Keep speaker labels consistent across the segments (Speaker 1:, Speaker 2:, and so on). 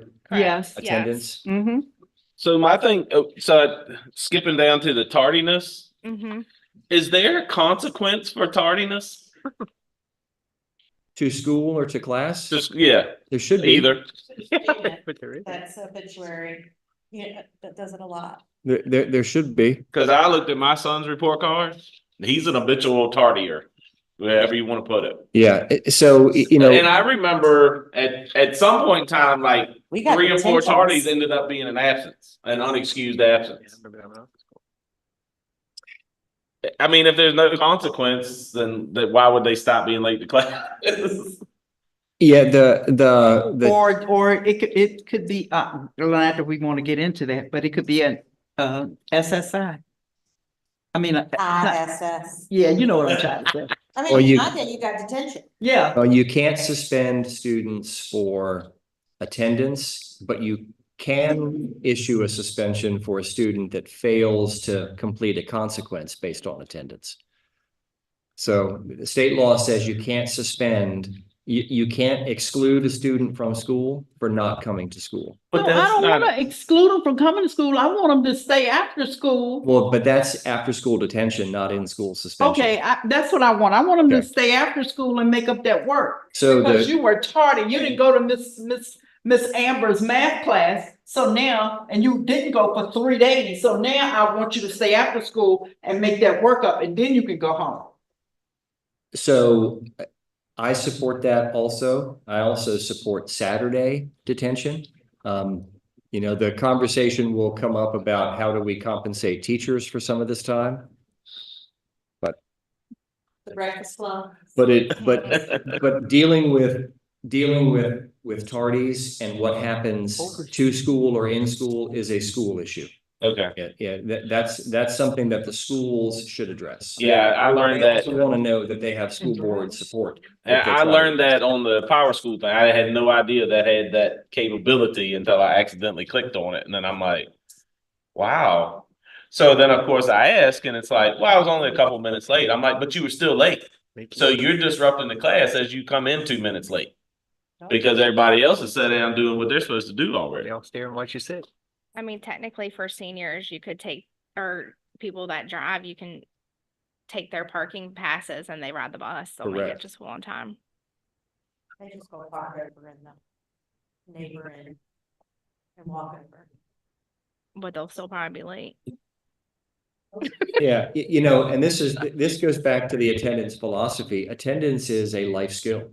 Speaker 1: correct?
Speaker 2: Yes.
Speaker 1: Yes.
Speaker 3: attendance.
Speaker 2: Mm-hmm.
Speaker 4: So my thing, oh, so skipping down to the tardiness,
Speaker 2: Mm-hmm.
Speaker 1: Mhm.
Speaker 4: is there a consequence for tardiness?
Speaker 3: To school or to class?
Speaker 4: Just, yeah,
Speaker 3: There should be.
Speaker 4: either.
Speaker 5: That's obituary. Yeah, that does it a lot.
Speaker 3: There, there, there should be.
Speaker 4: Cause I looked at my son's report card. He's an habitual tardier, wherever you want to put it.
Speaker 3: Yeah. it- So, y- you
Speaker 4: And
Speaker 3: know,
Speaker 4: I remember at, at some point in time, like
Speaker 5: We got
Speaker 4: three or four
Speaker 5: detentions.
Speaker 4: tardies ended up being an absence, an unexcused absence. I mean, if there's no consequence, then that why would they stop being late to class?
Speaker 3: yeah, the, the, the,
Speaker 2: Or, or it could, it could be, uh, glad that we want to get into that, but it could be an, uh, SSI. I mean, uh, not-
Speaker 5: ISS.
Speaker 2: yeah, you know what I'm trying to say.
Speaker 5: I
Speaker 3: Or
Speaker 5: mean,
Speaker 3: you-
Speaker 5: I think you got detention.
Speaker 2: Yeah.
Speaker 3: uh, you can't suspend students for attendance, but you can issue a suspension for a student that fails to complete a consequence based on attendance. So the state law says you can't suspend, you, you can't exclude a student from school for not coming to school.
Speaker 4: But
Speaker 2: No, I
Speaker 4: that's
Speaker 2: don't
Speaker 4: not,
Speaker 2: wanna exclude them from coming to school. I want them to stay after school.
Speaker 3: Well, but that's after-school detention, not in-school suspension.
Speaker 2: Okay, I, that's what I want. I want them to
Speaker 3: Okay.
Speaker 2: stay after school and make up that work.
Speaker 3: So
Speaker 2: Because
Speaker 3: the,
Speaker 2: you were tardy. You didn't go to Miss, Miss, Miss Amber's math class. So now, and you didn't go for three days. So now I want you to stay after school and make that work up and then you can go home.
Speaker 3: so uh, I support that also. I also support Saturday detention. Um, you know, the conversation will come up about how do we compensate teachers for some of this time?
Speaker 5: The breakfast club.
Speaker 3: But it, but, but dealing with, dealing with, with tardies and what happens to school or in school is a school issue.
Speaker 4: okay.
Speaker 3: Yeah, yeah, that, that's, that's something that the schools should address.
Speaker 4: Yeah, I learned
Speaker 3: They
Speaker 4: that.
Speaker 3: also want to know that they have school board support.
Speaker 4: And
Speaker 3: if they
Speaker 4: I
Speaker 3: try to-
Speaker 4: learned that on the power school thing. I had no idea that had that capability until I accidentally clicked on it. And then I'm like, wow. So then, of course, I ask and it's like, well, I was only a couple minutes late. I'm like, but you were still late. So you're disrupting the class as you come in two minutes late. Because everybody else is sitting down doing what they're supposed to do already.
Speaker 6: all staring what you said.
Speaker 1: I mean, technically for seniors, you could take, or people that drive, you can take their parking passes and they ride the bus. So like
Speaker 3: Correct.
Speaker 1: it's just one time.
Speaker 5: They just go park over in the neighboring and walk over.
Speaker 1: But they'll still probably be late.
Speaker 3: Yeah, y- you know, and this is, this goes back to the attendance philosophy. Attendance is a life skill.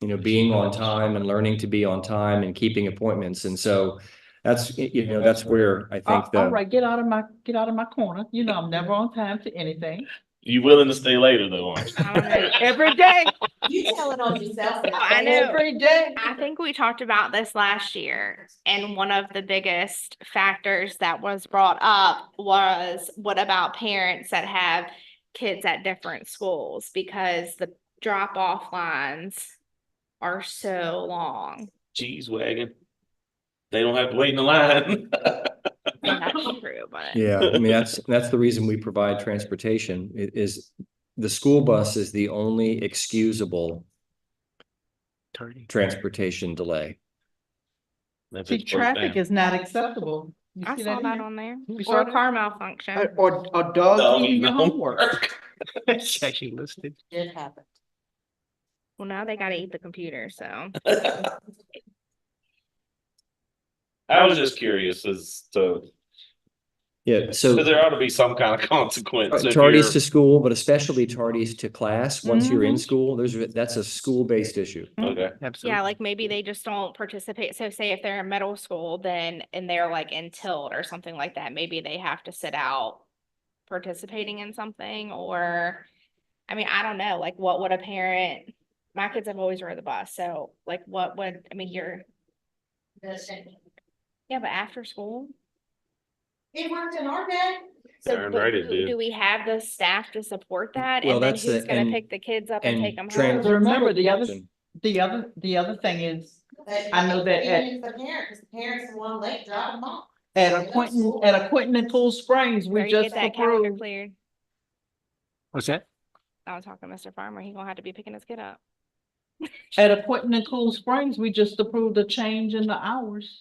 Speaker 3: You know, being on time and learning to be on time and keeping appointments. And so that's, y- you know, that's where I
Speaker 2: All
Speaker 3: think
Speaker 2: all
Speaker 3: the,
Speaker 2: right, get out of my, get out of my corner. You know, I'm never on time for anything.
Speaker 4: You willing to stay later though, aren't you?
Speaker 1: I don't know.
Speaker 2: Every day,
Speaker 5: You tell it on yourself.
Speaker 1: I know.
Speaker 2: every day.
Speaker 1: I think we talked about this last year, and one of the biggest factors that was brought up was what about parents that have kids at different schools? Because the drop off lines are so long.
Speaker 4: Cheese wagon. They don't have to wait in the line.
Speaker 1: And That's true, but
Speaker 3: yeah, I mean, that's, that's the reason we provide transportation i- is the school bus is the only excusable transportation delay.
Speaker 4: If
Speaker 2: See,
Speaker 4: it's broke
Speaker 2: traffic
Speaker 4: down.
Speaker 2: is not acceptable. You
Speaker 1: I
Speaker 2: see
Speaker 1: saw
Speaker 2: here?
Speaker 1: that on there.
Speaker 6: We
Speaker 1: Or
Speaker 6: saw
Speaker 1: a car malfunction.
Speaker 2: Or- Or, or dogs
Speaker 4: Dog
Speaker 2: eating
Speaker 4: eating
Speaker 2: your homework.
Speaker 6: It's actually listed.
Speaker 5: Did happen.
Speaker 1: Well, now they gotta eat the computer, so.
Speaker 4: I was just curious as to,
Speaker 3: Yeah, so.
Speaker 4: because there ought to be some kind of consequence. if
Speaker 3: Tardies
Speaker 4: you're-
Speaker 3: to school, but especially tardies to class, once you're
Speaker 2: Mm-hmm.
Speaker 3: in school, there's, a- that's a school-based issue.
Speaker 4: Okay,
Speaker 6: Absolutely.
Speaker 1: Yeah, like maybe they just don't participate. So say if they're in middle school, then, and they're like in tilt or something like that, maybe they have to sit out participating in something or, I mean, I don't know, like what would a parent, my kids have always rode the bus, so like what would, I mean, you're, yeah, but after school?
Speaker 5: It worked in our day.
Speaker 1: So
Speaker 4: Darn
Speaker 1: but
Speaker 4: right it
Speaker 1: who-
Speaker 4: did.
Speaker 1: do we have the staff to support that?
Speaker 3: Well,
Speaker 1: And then
Speaker 3: that's the-
Speaker 1: who's gonna
Speaker 3: and-
Speaker 1: pick the kids up and
Speaker 3: And
Speaker 1: take them
Speaker 3: trans-
Speaker 1: home?
Speaker 2: Remember the other- The other, the other thing is, I know that at-
Speaker 5: Even if the parent, because the parents the one late, drop them off.
Speaker 2: at a Quentin, at a Quentin and Cool Springs,
Speaker 1: Better
Speaker 2: we
Speaker 1: get
Speaker 2: just
Speaker 1: that calendar
Speaker 2: approved.
Speaker 1: Cleared.
Speaker 6: What's that?
Speaker 1: I was talking to Mr. Farmer, he gonna have to be picking his kid up.
Speaker 2: At a Quentin and Cool Springs, we just approved a change in the hours.